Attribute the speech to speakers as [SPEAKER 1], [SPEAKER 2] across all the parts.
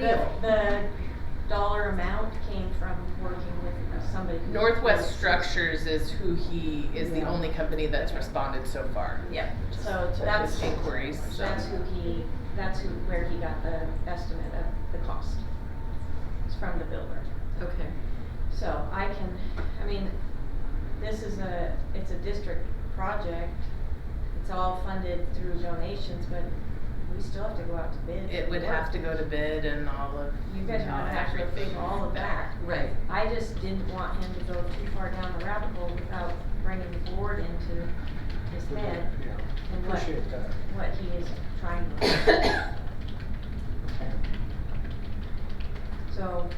[SPEAKER 1] The, the dollar amount came from working with somebody. who-
[SPEAKER 2] Northwest Structures is who he is the
[SPEAKER 3] Yeah.
[SPEAKER 2] only company that's responded so far.
[SPEAKER 1] Yeah, so
[SPEAKER 3] So
[SPEAKER 1] that's,
[SPEAKER 2] It's inquiries. so-
[SPEAKER 1] that's who he, that's who, where he got the estimate of the cost. It's from the builder.
[SPEAKER 3] Okay.
[SPEAKER 1] So I can, I mean, this is a, it's a district project. It's all funded through donations, but we still have to go out to bid.
[SPEAKER 2] It would have to go to bid and all of
[SPEAKER 1] You guys
[SPEAKER 2] all
[SPEAKER 1] have to actually
[SPEAKER 2] everything
[SPEAKER 1] figure all of that.
[SPEAKER 3] Right.
[SPEAKER 1] I just didn't want him to go too far down the rabbit hole without bringing the board into his head
[SPEAKER 4] Yeah,
[SPEAKER 1] and what,
[SPEAKER 4] appreciate that.
[SPEAKER 1] what he is trying to do. So,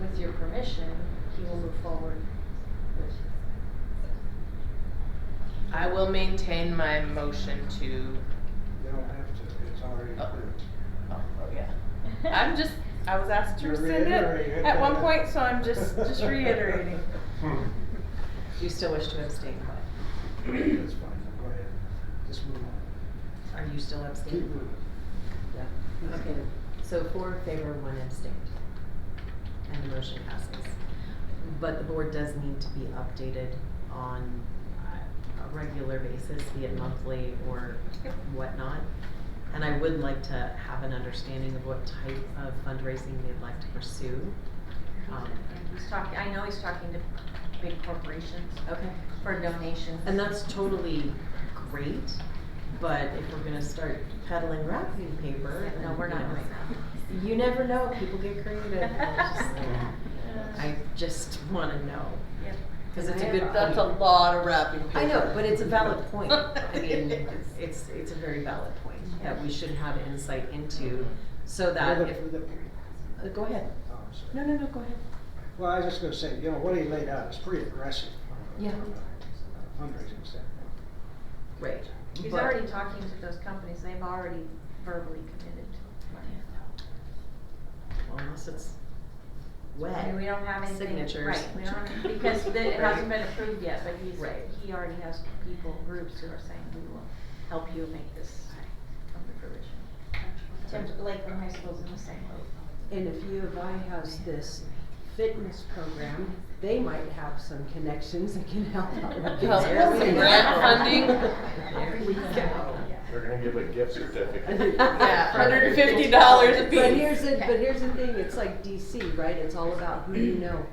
[SPEAKER 1] with your permission, he will move forward with,
[SPEAKER 2] I will maintain my motion to.
[SPEAKER 4] You don't have to, it's already
[SPEAKER 2] Oh.
[SPEAKER 4] approved.
[SPEAKER 2] Oh, oh, yeah. I'm just. I was asked to
[SPEAKER 4] You're
[SPEAKER 2] rescind it
[SPEAKER 4] reiterating.
[SPEAKER 2] at one point, so I'm just just reiterating.
[SPEAKER 3] You still wish to abstain,
[SPEAKER 4] That's fine, go ahead. Just move on.
[SPEAKER 3] Are you still
[SPEAKER 4] Keep
[SPEAKER 3] abstaining?
[SPEAKER 4] moving.
[SPEAKER 3] Yeah. Okay, so four in favor, one abstained. And the motion passes. But the board does need to be updated on uh, a regular basis, be it monthly or whatnot. And I would like to have an understanding of what type of fundraising they'd like to pursue. Um,
[SPEAKER 1] and he's talking, I know he's talking to big corporations
[SPEAKER 3] Okay.
[SPEAKER 1] for donations.
[SPEAKER 3] And that's totally great, but if we're gonna start peddling wrapping paper.
[SPEAKER 1] Yeah, No, we're not doing that.
[SPEAKER 3] that. You never know, people get creative. and it's just- I just wanna know,
[SPEAKER 1] Yep.
[SPEAKER 3] cause it's a good point.
[SPEAKER 2] That's a lot of wrapping paper.
[SPEAKER 3] I know, but it's a valid point. I mean, it's- it's, it's a very valid point that we should have insight into so that
[SPEAKER 4] Well, the-
[SPEAKER 3] if,
[SPEAKER 4] the-
[SPEAKER 3] uh, go ahead.
[SPEAKER 4] oh, I'm sorry.
[SPEAKER 3] No, no, no, go ahead.
[SPEAKER 4] Well, I was just gonna say, you know, what he laid out is pretty aggressive. from a-
[SPEAKER 3] Yeah.
[SPEAKER 4] from a Fundraising standpoint.
[SPEAKER 3] Right.
[SPEAKER 1] He's
[SPEAKER 3] but-
[SPEAKER 1] already talking to those companies, they've already verbally committed to money.
[SPEAKER 3] Well, Unless it's wet.
[SPEAKER 1] I mean, we don't have anything,
[SPEAKER 3] signatures.
[SPEAKER 1] right, we don't, because the- it hasn't
[SPEAKER 3] Right.
[SPEAKER 1] been approved yet, but he's,
[SPEAKER 3] Right.
[SPEAKER 1] he already has people, groups who are saying, we will help you make this come to fruition. Tim, Lakeland High School's in the same boat.
[SPEAKER 5] And if U of I has this fitness program, they might have some connections that can help out with
[SPEAKER 2] Help
[SPEAKER 5] this.
[SPEAKER 2] with some grant funding.
[SPEAKER 3] There we go.
[SPEAKER 6] They're gonna give a gift certificate.
[SPEAKER 2] Yeah, hundred and fifty dollars a piece.
[SPEAKER 5] But here's the, but here's the thing, it's like DC, right? It's all about who you know.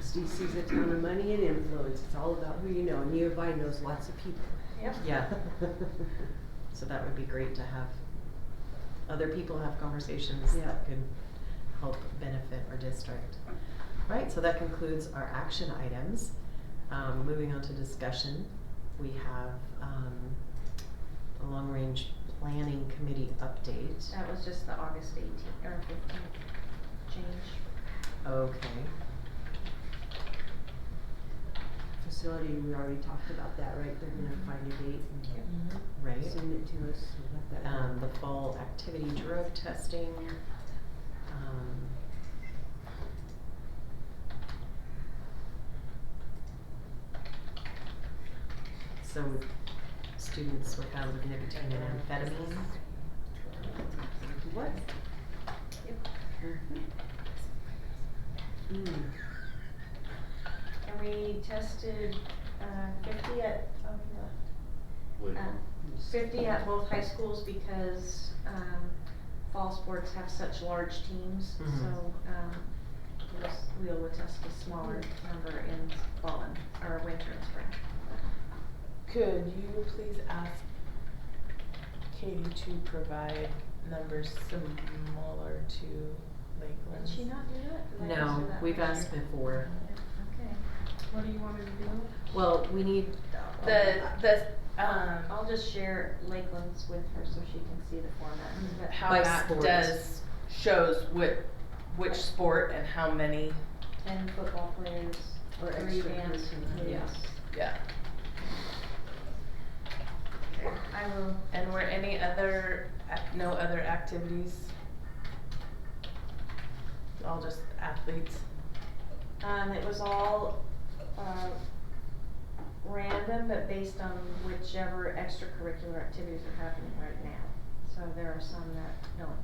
[SPEAKER 5] It's DC's a town of money and influence. It's all about who you know, and U of I knows lots of people.
[SPEAKER 1] Yep.
[SPEAKER 3] Yeah, so that would be great to have other people have conversations
[SPEAKER 5] Yeah.
[SPEAKER 3] that could help benefit our district. Right, so that concludes our action items. Um, moving on to discussion, we have, um, the Long Range Planning Committee update.
[SPEAKER 1] That was just the August eighteenth, or fifteenth change.
[SPEAKER 3] Okay,
[SPEAKER 5] Facility, we already talked about that, right? They're gonna find a date
[SPEAKER 2] Mm-hmm.
[SPEAKER 5] and
[SPEAKER 3] right.
[SPEAKER 5] send it to us. so let that go.
[SPEAKER 3] um, the fall activity drug testing. Um, So students were found with nicotine and amphetamine.
[SPEAKER 5] What?
[SPEAKER 1] Yep.
[SPEAKER 5] Mm.
[SPEAKER 1] And we tested, uh, fifty at, oh, no, uh, fifty at both high schools because, um, fall sports have such large teams,
[SPEAKER 3] Mhm.
[SPEAKER 1] so, um, it was- we will test a smaller number in fall and, or winter and spring.
[SPEAKER 2] Could you please ask Katie to provide numbers similar to Lakeland?
[SPEAKER 1] Did she not do that? Did I ask her
[SPEAKER 3] No,
[SPEAKER 1] that
[SPEAKER 3] we've
[SPEAKER 1] last
[SPEAKER 3] asked
[SPEAKER 1] year?
[SPEAKER 3] before.
[SPEAKER 1] Okay,
[SPEAKER 7] What do you want me to do?
[SPEAKER 3] Well, we need,
[SPEAKER 2] The, the,
[SPEAKER 1] um,
[SPEAKER 2] um,
[SPEAKER 1] I'll just share Lakeland's with her so she can see the format, but.
[SPEAKER 2] how
[SPEAKER 3] By
[SPEAKER 2] that
[SPEAKER 3] sport.
[SPEAKER 2] does, shows what, which sport and how many,
[SPEAKER 1] Ten football players,
[SPEAKER 5] Or
[SPEAKER 1] three
[SPEAKER 5] extracurricular,
[SPEAKER 1] dance players.
[SPEAKER 5] yes.
[SPEAKER 2] yeah.
[SPEAKER 1] I will,
[SPEAKER 2] And were any other, ac- no other activities? All just athletes?
[SPEAKER 1] um, it was all, uh, random, but based on whichever extracurricular activities are happening right now. So there are some that don't